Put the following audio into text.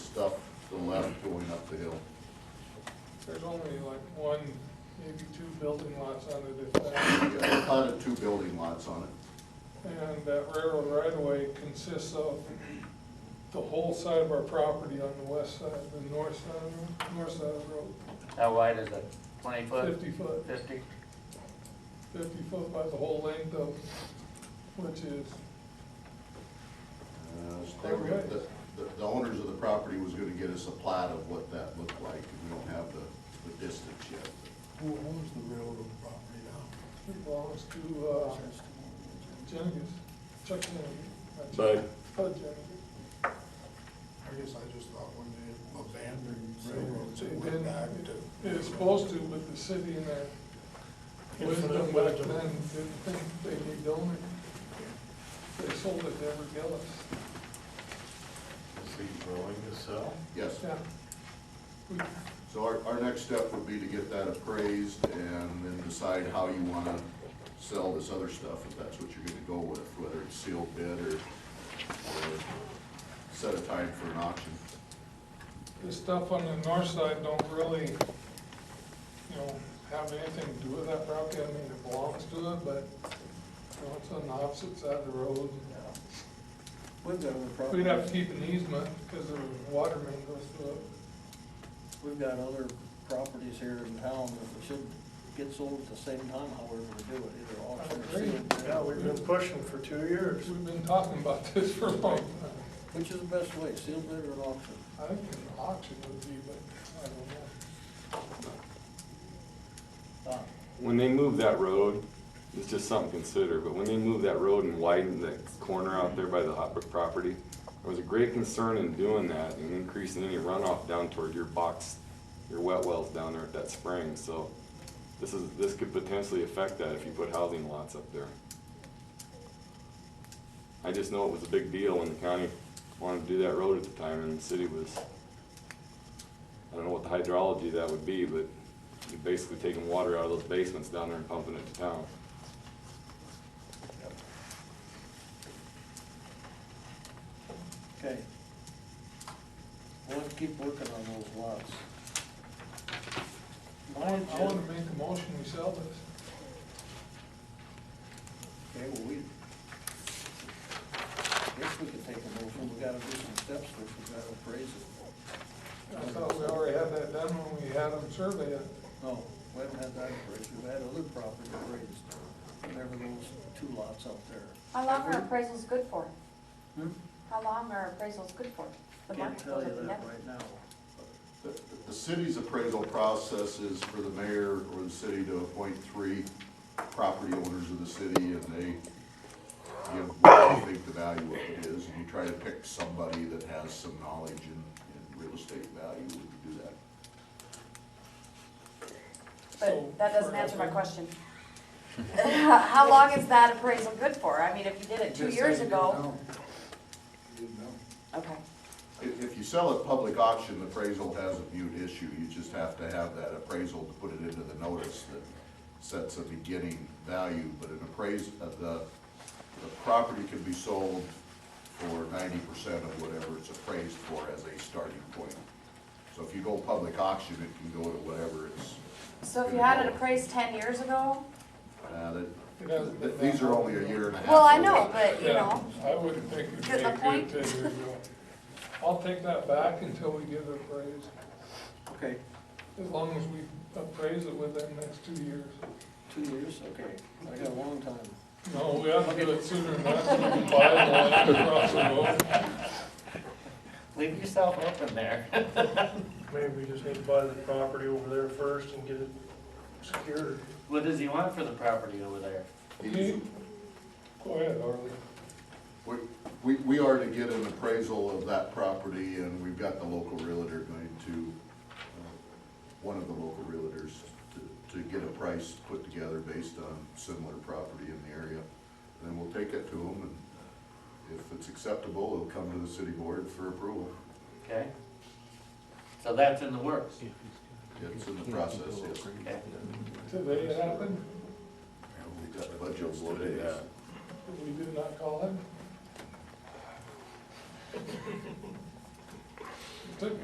There's only like one, maybe two building lots on it if that. I thought of two building lots on it. And that railroad right of way consists of the whole side of our property on the west side, the north side, of- north side of the road. How wide is it? Twenty foot? 50 foot. Fifty? Fifty foot by the whole length of, which is, Uh, so They were, gonna- the, the- the owners of the property was gonna get us a plot of what that looked like, and we don't have the, the distance yet. Who owns the railroad property now? it belongs to, uh, Jennings, Chuck Jennings. Bud. Bud Jennings. I guess I just thought when they abandoned railroads, They it went didn't, back to. it was supposed to, but the city and their wisdom back Infinite wisdom. then didn't think they could own it. They sold it to Everett Gillis. Is he willing to sell? Yes. Yeah. We- So our, our next step would be to get that appraised and then decide how you wanna sell this other stuff, if that's what you're gonna go with, whether it's sealed bid or, or set a time for an auction. The stuff on the north side don't really, you know, have anything to do with that property. I mean, it belongs to it, but, you know, it's on the opposite side of the road. We've got other We'd have to properties, keep an easement because the water main goes through it. we've got other properties here in town that we should get sold at the same time, however we do it, either auction or agree. sealed. Yeah, we've been pushing for two years. We've been talking about this for a long time. Which is the best way, sealed bid or an auction? I think an auction would be, but I don't know. Don? When they move that road, it's just something to consider, but when they moved that road and widened that corner out there by the hot brick property, there was a great concern in doing that and increasing any runoff down toward your box, your wet wells down there at that spring, so this is, this could potentially affect that if you put housing lots up there. I just know it was a big deal when the county wanted to do that road at the time and the city was, I don't know what the hydrology of that would be, but you're basically taking water out of those basements down there and pumping it to town. Okay. We'll have to keep working on those lots. My I want to agenda, make a motion, we sell this. okay, well, we, guess we could take a motion, we gotta do some steps first, we gotta appraise it. I thought we already had that done when we had them survey it. No, we haven't Oh, had that appraised, we've had other property appraised, whatever those two lots up there. How long are appraisals good for? Hmm? How long are appraisals good for? The Can't market tell goes you up and that down. right now. The, the city's appraisal process is for the mayor or the city to appoint three property owners of the city, and they give what they think the value of it is, and you try to pick somebody that has some knowledge in, in real estate value when you do that. So, But that doesn't for answer my nothing. question. How long is that appraisal good for? I mean, if you did it two Just years said ago, You didn't know. okay. If, if you sell at public auction, the appraisal has a viewed issue, you just have to have that appraisal to put it into the notice that sets a beginning value, but an appraise, uh, the, the property can be sold for ninety percent of whatever it's appraised for as a starting point. So if you go public auction, it can go to whatever it's, So if you had it appraised ten years ago? uh, It that, hasn't been th- these are that only a long. year and a half. Well, I old. know, but you Yeah, know, I wouldn't think it'd Get my be point? good ten years ago. I'll take that back until we give it appraised, Okay, as long as we appraise it within the next two years. two years, okay, I got a long time. No, we have to do it sooner than that, so we can buy the land across the road. Leave yourself open there. Maybe we just need to buy the property over there first and get it secured. What does he want for the property over there? These- Go ahead, Harley. We, we we are to get an appraisal of that property, and we've got the local realtor going to, uh, one of the local realtors, to, to get a price put together based on similar property in the area. And then we'll take it to them, and if it's acceptable, it'll come to the city board for approval. Okay? So that's in the works. It's in the process, yes. Okay. Today it happened, We've got budget loaded. we did not call him.